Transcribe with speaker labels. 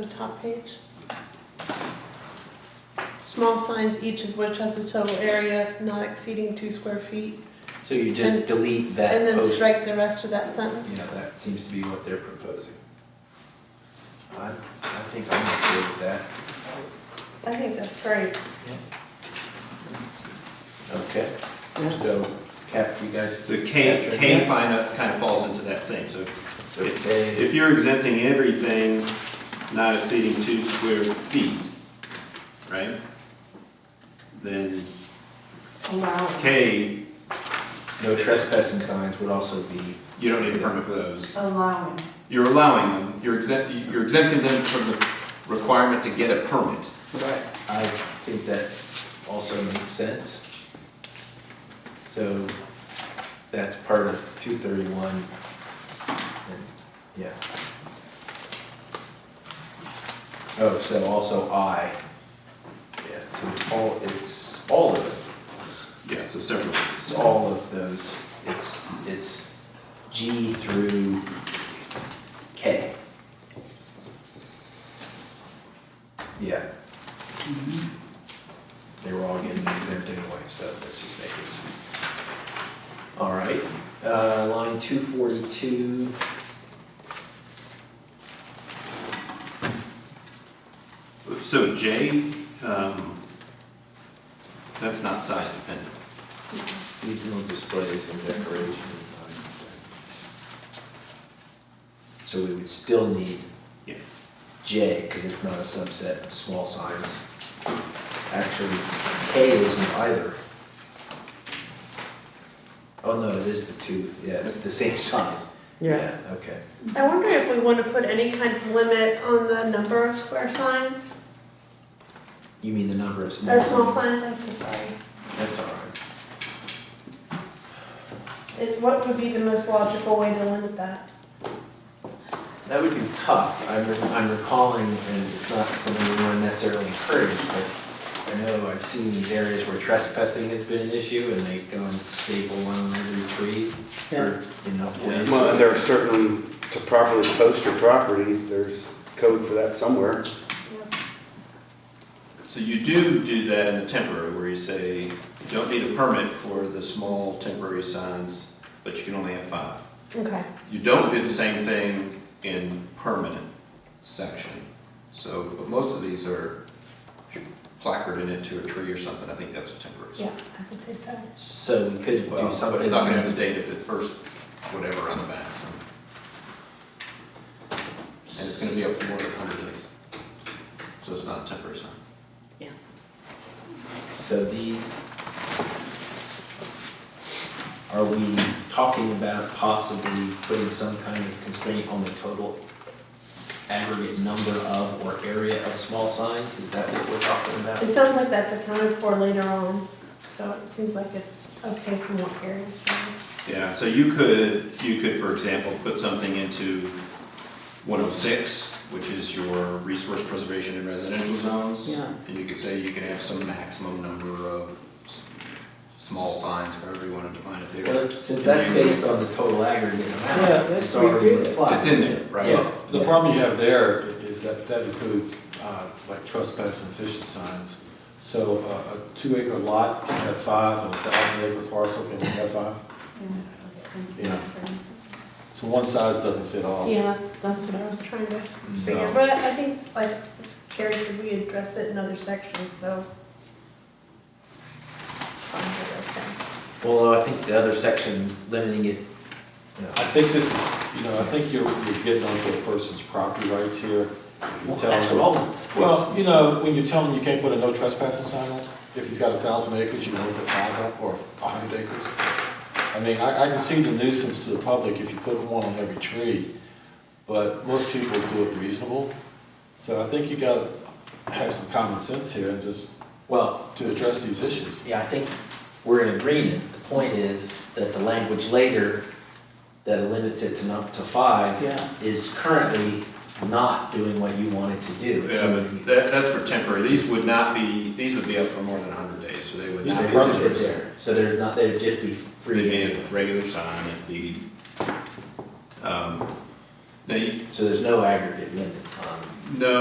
Speaker 1: the top page. Small signs, each of which has a total area not exceeding two square feet,
Speaker 2: So you just
Speaker 1: And-
Speaker 2: delete that
Speaker 1: and then
Speaker 2: post-
Speaker 1: strike the rest of that sentence.
Speaker 3: Yeah, that seems to be what they're proposing. I, I think I'm okay with that.
Speaker 1: I think that's great.
Speaker 3: Okay, so Cap, you guys.
Speaker 4: So K, K
Speaker 3: Yeah.
Speaker 4: kind of, kind of falls into that same, so
Speaker 3: So K,
Speaker 4: if you're exempting everything not exceeding two square feet, right? Then
Speaker 5: Allow,
Speaker 4: K,
Speaker 3: no trespassing signs would also be,
Speaker 4: you don't need a permit for those.
Speaker 5: allowing.
Speaker 4: You're allowing them, you're exempt, you're exempting them from the requirement to get a permit.
Speaker 3: I think that also makes sense. So that's part of two thirty-one. Yeah. Oh, so also I. Yeah, so it's all, it's all of it.
Speaker 4: Yeah, so several.
Speaker 3: It's all of those, it's, it's G through K. Yeah. They were all getting exempt anyway, so let's just make it. All right, uh, line two forty-two.
Speaker 4: So J, um, that's not size dependent.
Speaker 3: Seasonal displays and decorations. So we would still need
Speaker 4: Yeah.
Speaker 3: J, because it's not a subset of small signs. Actually, K isn't either. Oh, no, it is the two, yeah, it's the same size. Okay.
Speaker 1: I wonder if we want to put any kind of limit on the number of square signs,
Speaker 3: You mean the number of small
Speaker 1: or
Speaker 3: signs?
Speaker 1: small signs, I'm so sorry.
Speaker 3: That's all right.
Speaker 1: Is, what would be the most logical way to limit that?
Speaker 3: That would be tough. I'm, re- I'm recalling, and it's not something we want to necessarily encourage, but I know I've seen these areas where trespassing has been an issue, and they go and staple one on every tree for enough ways.
Speaker 6: Well, and there are certain, to properly post your property, there's code for that somewhere.
Speaker 4: So you do do that in the temporary, where you say, you don't need a permit for the small temporary signs, but you can only have five.
Speaker 1: Okay.
Speaker 4: You don't do the same thing in permanent section. So, but most of these are if you placarded it to a tree or something, I think that's a temporary. sign.
Speaker 1: Yeah, I would say so.
Speaker 3: So we could
Speaker 4: Well,
Speaker 3: do
Speaker 4: but
Speaker 3: something.
Speaker 4: it's not gonna have the date of the first, whatever on the back, so. and it's gonna be up for more than hundred days. So it's not a temporary sign.
Speaker 3: So these, are we talking about possibly putting some kind of constraint on the total aggregate number of or area of small signs? Is that what we're talking about?
Speaker 1: It sounds like that's accounted for later on, so it seems like it's okay from what Gary's saying.
Speaker 4: Yeah, so you could, you could, for example, put something into 106, which is your resource preservation in residential zones.
Speaker 5: Yeah.
Speaker 4: And you could say you can have some maximum number of s- small signs, however you want to define it there.
Speaker 3: Well, since that's based on the total aggregate
Speaker 7: Yeah,
Speaker 3: amount,
Speaker 7: that's
Speaker 3: it's
Speaker 7: what we
Speaker 3: already
Speaker 7: did.
Speaker 3: applied.
Speaker 4: It's in there, right?
Speaker 3: Yeah.
Speaker 7: Well, The problem you have there is that that includes uh, like trespass and fishing signs. So uh, a two acre lot can have five, and a thousand acre parcel can have five. Yeah. So one size doesn't fit
Speaker 6: Oh.
Speaker 7: all.
Speaker 1: Yeah, that's, that's what I was trying to
Speaker 4: Mm-hmm.
Speaker 1: figure,
Speaker 7: So-
Speaker 1: but I I think, like Gary said, we address it in other sections, so. I'm good, okay.
Speaker 3: Although I think the other section limiting it, you know,
Speaker 7: I think this is, you know, I think you're, you're getting onto a person's property rights here. If you
Speaker 3: well,
Speaker 7: tell
Speaker 3: that's what
Speaker 7: them-
Speaker 3: all this was.
Speaker 7: Well, you know, when you tell him you can't put a no trespassing sign on, if he's got a thousand acres, you can only put five up, or a hundred acres. I mean, I, I can see the nuisance to the public if you put one on every tree, but most people do it reasonable. So I think you gotta have some common sense here and just,
Speaker 3: Well,
Speaker 7: to address these issues.
Speaker 3: yeah, I think we're in agreement. The point is that the language later that limits it to not to five
Speaker 5: Yeah.
Speaker 3: is currently not doing what you wanted to do. It's
Speaker 4: Yeah, but
Speaker 3: limiting it.
Speaker 4: that, that's for temporary. These would not be, these would be up for more than 100 days, so they would
Speaker 3: These
Speaker 4: not
Speaker 3: are
Speaker 4: be
Speaker 3: permitted
Speaker 4: temporary.
Speaker 3: there, so they're not, they'd just be
Speaker 4: They'd
Speaker 3: free.
Speaker 4: be a regular sign, it'd be, um, now, you-
Speaker 3: So there's no aggregate limit on
Speaker 4: no,